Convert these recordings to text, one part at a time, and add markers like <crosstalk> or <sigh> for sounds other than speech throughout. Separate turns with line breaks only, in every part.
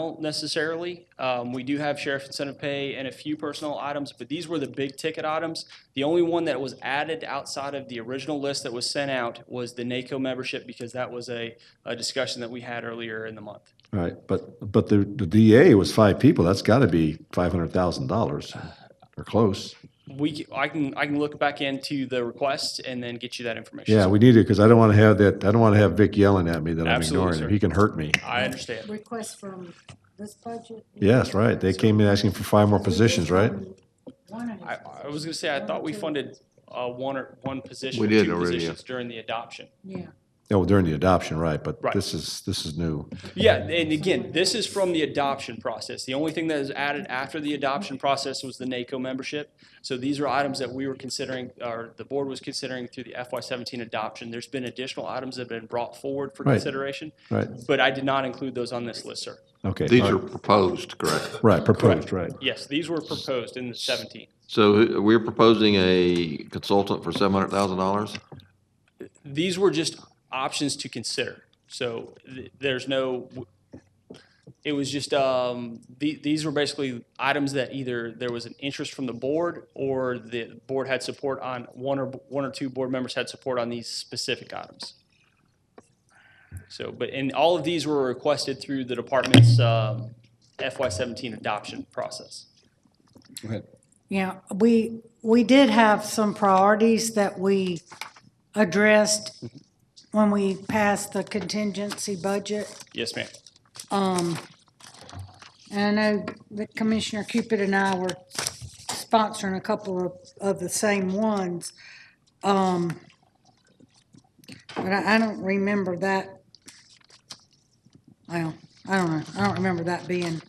personnel necessarily. Um, we do have sheriff incentive pay and a few personnel items, but these were the big ticket items. The only one that was added outside of the original list that was sent out was the NACO membership because that was a, a discussion that we had earlier in the month.
Right, but, but the, the DA was five people, that's gotta be five hundred thousand dollars,
Uh,
or close.
We, c- I can, I can look back into the request and then get you that information.
Yeah, we need it, because I don't wanna have that, I don't wanna have Vic yelling at me that I'm
Absolutely,
ignoring
sir.
him, he can hurt me.
I understand.
request from this budget?
Yes, right, they came in asking for five more positions, right?
I, I was gonna say, I thought we funded, uh, one or, one position,
We
or
did
two
already, yeah.
positions during the adoption.
Yeah,
Oh, during the adoption, right, but
Right.
this is, this is new.
Yeah, and again, this is from the adoption process. The only thing that is added after the adoption process was the NACO membership. So these are items that we were considering, or the board was considering through the FY seventeen adoption. There's been additional items that have been brought forward for
Right.
consideration,
Right,
but I did not include those on this list, sir.
okay.
These
all
are
right.
proposed, correct?
Right, proposed, right.
Yes, these were proposed in the seventeen.
So who- we're proposing a consultant for seven hundred thousand dollars?
These were just options to consider. So th- there's no, it was just, um, the, these were basically items that either there was an interest from the board or the board had support on, one or, one or two board members had support on these specific items. So, but, and all of these were requested through the department's um, FY seventeen adoption process.
yeah, we, we did have some priorities that we addressed when we passed the contingency budget.
Yes, ma'am.
Um, and I know that Commissioner Cupid and I were sponsoring a couple of, of the same ones. Um, but I, I don't remember that. Well, I don't know. I don't remember that being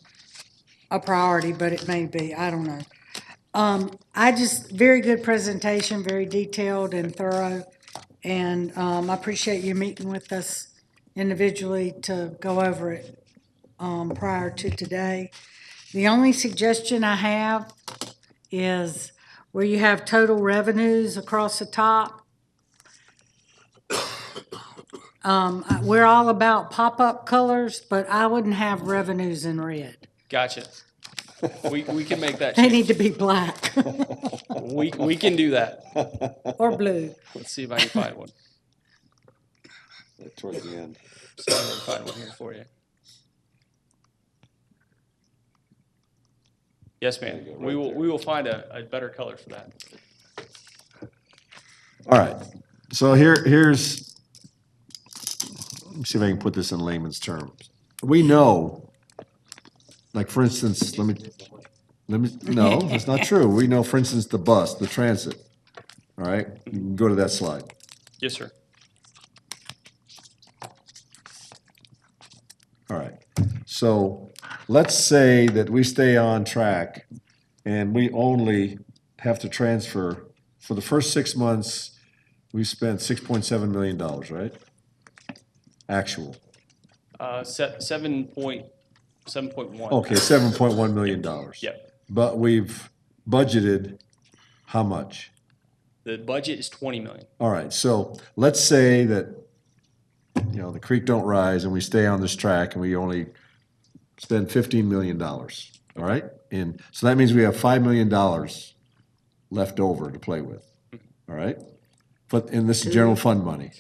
a priority, but it may be. I don't know. Um, I just, very good presentation, very detailed and thorough. And, um, I appreciate you meeting with us individually to go over it um, prior to today. The only suggestion I have is where you have total revenues across the top. Um, I- We're all about pop-up colors, but I wouldn't have revenues in red.
Gotcha. We, we can make
<laughs>
that,
They
change.
need to be black <laughs>
we, we can do that.
or blue.
Let's see if I can find one.
Towards the end.
See if I can find one here for you. Yes, ma'am. We will, we will find a, a better color for that.
All right, so here, here's, let me see if I can put this in layman's terms. We know, like, for instance, let me, let me, no, that's not true. We know, for instance, the bus, the transit, all right? You can Go to that slide.
Yes, sir.
All right. So let's say that we stay on track and we only have to transfer, for the first six months, we spent $6.7 million, right? Actual.
Uh, se- seven point, seven point one.
Okay, seven point one million dollars.
Yep.
But we've budgeted how much?
The budget is twenty million.
All right, so let's say that, you know, the creek don't rise and we stay on this track and we only spend fifteen million dollars, all right? And so that means we have five million dollars left over to play with, all right? But, and this is general fund money.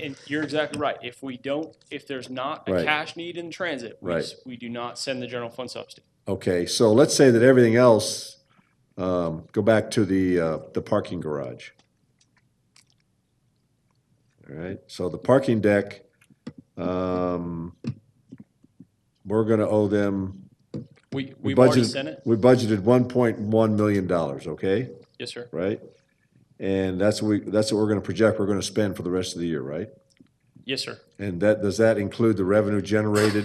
And you're exactly right. If we don't, if there's not a
Right.
cash need in transit, we,
Right.
s- we do not send the general fund subsidy.
Okay, so let's say that everything else, um, go back to the, uh, the parking garage. All right, so the parking deck, um, we're gonna owe them.
We,
we
we've already
budgeted-
sent it.
We budgeted one point one million dollars, okay,
Yes, sir.
right? And that's what we, that's what we're gonna project, we're gonna spend for the rest of the year, right?
Yes, sir.
And that, does that include the revenue generated?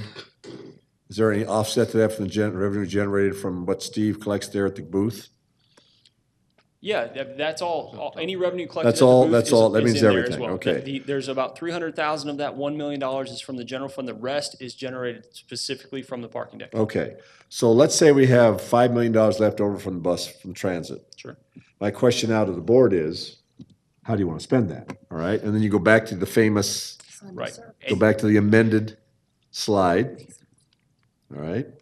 Is there any offset to that from the gen, revenue generated from what Steve collects there at the booth?
Yeah, that, that's all, all, any revenue collected.
That's
at the
all-
booth
that's
is-
all. That
is
means
in there as
everything.
well.
Okay.
The- the- There's about three hundred thousand of that one million dollars is from the general fund. The rest is generated specifically from the parking deck.
Okay, so let's say we have five million dollars left over from the bus, from transit.
Sure.
My question out of the board is, how do you want to spend that? All right, and then you go back to the famous,
Right.
go back to the amended slide. all right?